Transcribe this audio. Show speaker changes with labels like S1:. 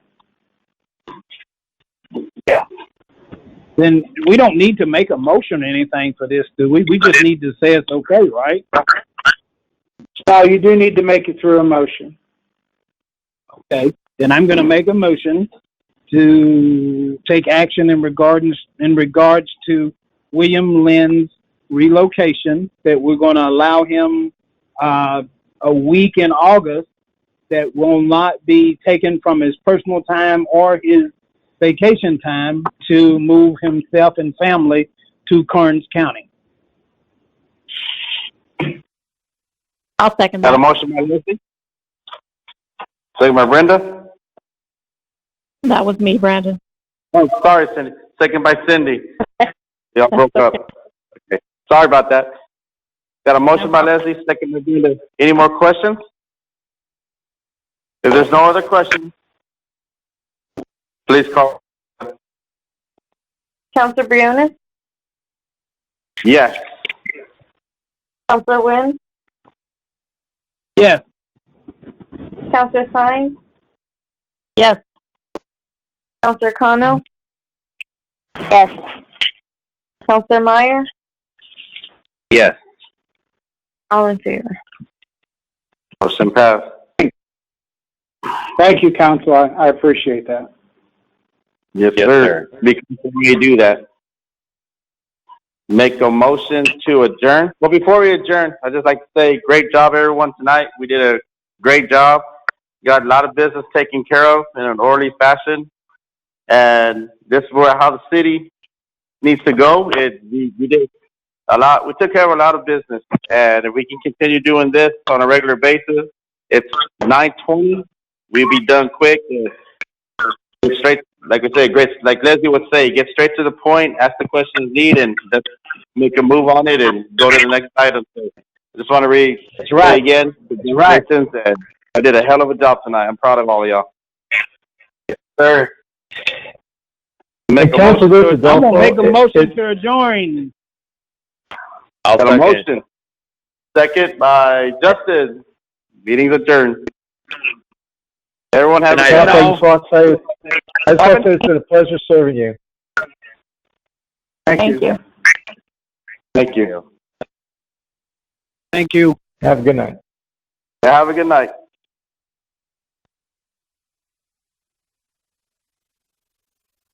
S1: then we don't need to make a motion or anything for this, do we? We just need to say it's okay, right?
S2: No, you do need to make it through a motion.
S1: Okay, then I'm gonna make a motion to take action in regards, in regards to William Lynn's relocation, that we're gonna allow him, uh, a week in August that will not be taken from his personal time or his vacation time to move himself and family to Kearns County.
S3: I'll second
S4: Got a
S3: that.
S4: motion by Lucy? Second by Brenda?
S3: That was me, Brandon.
S4: Oh, sorry, Cindy. Second by Cindy. Y'all broke up. Okay. Sorry about that. Got a motion by Leslie, second by Brenda. Any more questions? If there's no other questions, please call.
S5: Counselor Briones,
S4: Yes.
S5: Counselor Wynn,
S1: Yes.
S5: Counselor Sines,
S3: Yes.
S5: Counselor Kano. Yes. Counselor Meyer,
S4: Yes.
S5: all in favor.
S4: Motion passed.
S2: Thank you, counsel. I, I appreciate that.
S4: Yes, sir. Because we do that. Make a motion to adjourn. Well, before we adjourn, I'd just like to say great job, everyone, tonight. We did a great job. Got a lot of business taken care of in an orderly fashion. And this is where, how the city needs to go. It, we, we did a lot. We took care of a lot of business. And if we can continue doing this on a regular basis, it's 920. We'll be done quick. and get straight, like we said, great, like Leslie would say, get straight to the point, ask the questions needed, and let's make a move on it and go to the next item. So I just want to read
S1: That's right.
S4: say again. Congratulations, and I did a hell of a job tonight. I'm proud of all of y'all. Yes, sir. Make a
S6: Council,
S4: motion.
S6: this is
S1: I'm gonna make
S6: also,
S1: a motion to adjourn.
S7: I'll
S4: Got a
S7: second.
S4: motion. Second by Justin. Meeting's adjourned. Everyone have a
S7: Good
S4: good
S7: night,
S4: night.
S6: Council, I just want to say, I just want to say it's been a pleasure serving you.
S3: Thank you.
S4: Thank you.
S1: Thank you.
S6: Have a good night.
S4: Have a good night.